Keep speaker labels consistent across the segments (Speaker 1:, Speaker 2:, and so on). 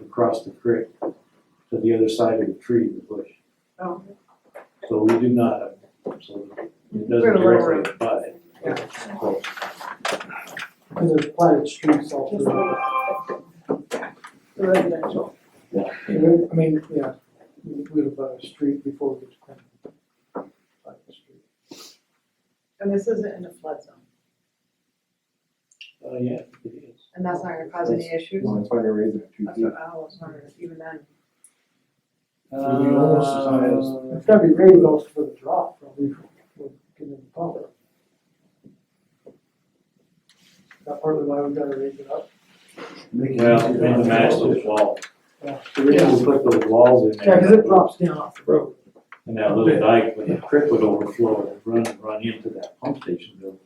Speaker 1: across the creek to the other side of the tree, the bush.
Speaker 2: Oh.
Speaker 1: So we do not, so it doesn't
Speaker 2: We're a little
Speaker 1: directly apply it. So,
Speaker 3: Because there's platted streets all
Speaker 2: Just
Speaker 3: through.
Speaker 2: The residential.
Speaker 3: I mean, yeah, we we have a street before we get to Clinton. Platted street.
Speaker 2: And this isn't in a flood zone,
Speaker 1: Uh, yeah, it is.
Speaker 2: and that's not gonna cause any issues?
Speaker 4: No, that's why they raised it to two
Speaker 2: That's
Speaker 4: feet.
Speaker 2: what I was wondering, even then.
Speaker 3: Uh, It's gotta be raised also for the drop, probably, for getting the pump. That part of why we gotta raise it up.
Speaker 1: Well, and the match those walls.
Speaker 3: Yeah.
Speaker 1: So we had to put those walls in there.
Speaker 3: Yeah, cause it drops down off the road.
Speaker 1: And that little dike, when the creek would overflow, it would run, run into that pump station building.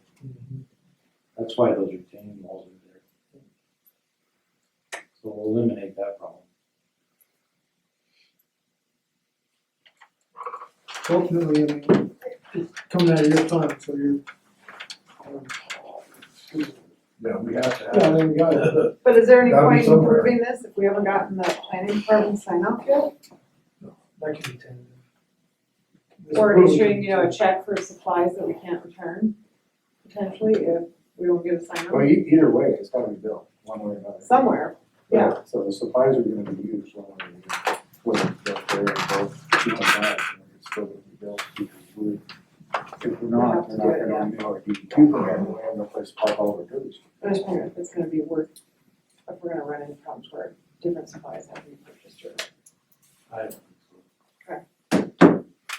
Speaker 1: That's why those retaining walls are there. So we'll eliminate that problem.
Speaker 3: Ultimately, I mean, it's coming out of your fund, so you're. um,
Speaker 4: Yeah, we have to
Speaker 3: Yeah,
Speaker 4: have.
Speaker 3: then you got it.
Speaker 2: But is there any
Speaker 4: Gotta be
Speaker 2: point in
Speaker 4: somewhere.
Speaker 2: improving this if we haven't gotten the planning department sign off yet?
Speaker 3: That can be tended.
Speaker 2: Or issuing, you know, a check for supplies that we can't return, potentially, if we don't get a sign
Speaker 4: Well,
Speaker 2: off
Speaker 4: e- either way, it's gotta be built, one way or another.
Speaker 2: somewhere. yeah.
Speaker 4: So the supplies are gonna be used one way or another, whether it's built there or both, two and five, and it's still gonna be built. because we- If we're not, we're not gonna renew our DEQ permit, we have no place to park all of our garbage.
Speaker 2: But I'm just wondering if it's gonna be worth, if we're gonna run into problems where different supplies have to be purchased or.
Speaker 1: I don't think so.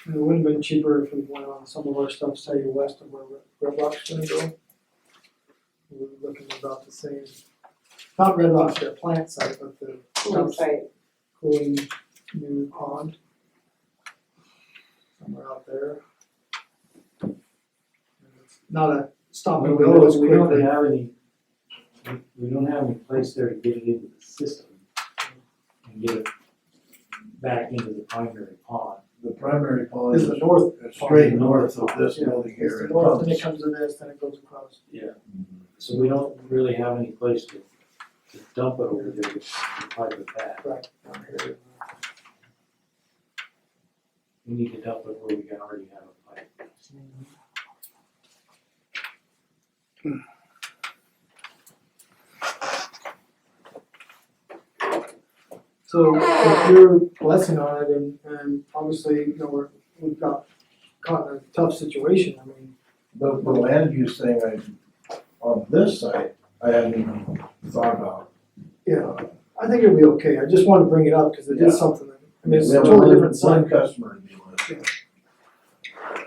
Speaker 3: It would have been cheaper if we went on some of our stuff, say west of where Red Rock's gonna go. We're looking about the same, not Red Rock's, their plant site, but the
Speaker 2: Looks like,
Speaker 3: cooling new pond. Somewhere out there. And it's Not a stop and go as
Speaker 1: We don't
Speaker 3: quickly.
Speaker 1: have any, we- we don't have any place there to get it into the system and get it back into the primary pond.
Speaker 5: The primary pond
Speaker 3: It's
Speaker 5: is
Speaker 3: the north,
Speaker 5: straight north of this building
Speaker 3: it's
Speaker 5: here.
Speaker 3: the
Speaker 5: and
Speaker 3: north, then it
Speaker 5: comes-
Speaker 3: comes to this, then it goes across.
Speaker 1: So we don't really have any place to to dump it over there, to pipe it back.
Speaker 3: Right, down here.
Speaker 1: We need to dump it where we can already have a pipe.
Speaker 3: So if you're blessing on it and, and obviously, you know, we're, we've got caught in a tough situation, I mean,
Speaker 5: The, the land use thing I, on this site, I hadn't even thought about.
Speaker 3: yeah, I think it'll be okay, I just wanna bring it up, cause it
Speaker 5: Yeah.
Speaker 3: is something that, I mean, it's
Speaker 5: We
Speaker 3: a
Speaker 5: have
Speaker 3: totally
Speaker 5: one-
Speaker 3: different side.
Speaker 5: One customer in the list.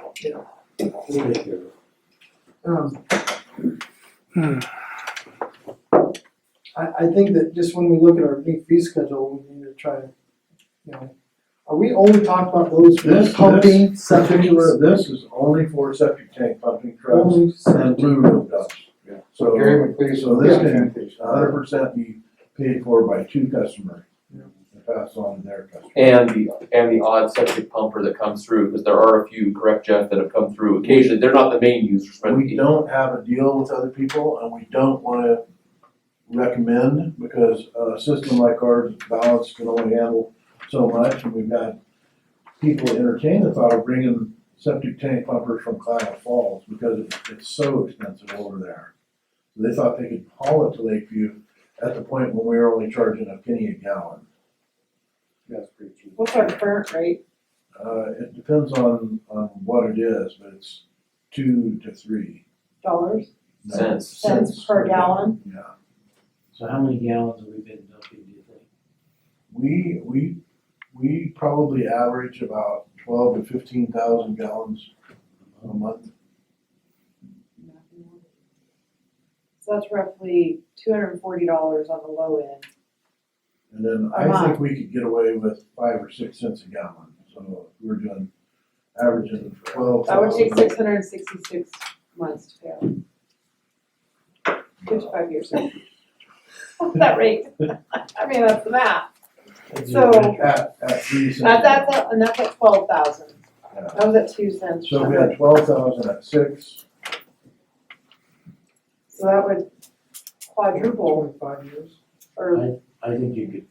Speaker 1: We'll take care of it.
Speaker 3: Um. I, I think that just when we look at our big fee schedule, we need to try to, you know, are we only talking about those for
Speaker 5: This,
Speaker 3: pumping,
Speaker 5: this
Speaker 3: septic,
Speaker 5: particular, this is only for septic tank pumping trucks
Speaker 3: only
Speaker 5: and
Speaker 3: septic?
Speaker 5: blue room dumps.
Speaker 4: Yeah.
Speaker 5: So
Speaker 4: Gary McLeese.
Speaker 5: so this
Speaker 4: yeah.
Speaker 5: a hundred percent be paid for by two customers.
Speaker 3: Yeah.
Speaker 5: And Pass on to their customer.
Speaker 6: And the, and the odd septic pumper that comes through, because there are a few, correct Jeff, that have come through occasionally, they're not the main users, but
Speaker 5: We don't have a deal with other people and we don't wanna recommend because a system like ours, balance can only handle so much and we've had people entertain the thought of bringing septic tank pumpers from Cloud Falls because it's- it's so expensive over there. They thought they could haul it to Lakeview at the point when we were only charging a penny a gallon.
Speaker 4: That's pretty cheap.
Speaker 2: what's our current rate?
Speaker 5: Uh, it depends on, on what it is, but it's two to three.
Speaker 2: Dollars,
Speaker 6: Cents.
Speaker 2: cents per gallon?
Speaker 5: Yeah.
Speaker 1: So how many gallons have we been dumping, do you think?
Speaker 5: We, we, we probably average about twelve to fifteen thousand gallons a month.
Speaker 2: So that's roughly two hundred and forty dollars on the low end.
Speaker 5: And then
Speaker 2: A
Speaker 5: I
Speaker 2: month.
Speaker 5: think we could get away with five or six cents a gallon, so we're doing, averaging twelve
Speaker 2: That would
Speaker 5: thousand.
Speaker 2: take six hundred and sixty-six months to pay off. Fifty-five years. That rate, I mean, that's the math, so,
Speaker 5: At, at three cents.
Speaker 2: that, that's, at- and that's at twelve thousand,
Speaker 5: Yeah.
Speaker 2: that was at two cents.
Speaker 5: So we had twelve thousand at six,
Speaker 2: So that would quadruple
Speaker 3: Only five years.
Speaker 2: or
Speaker 1: I think you could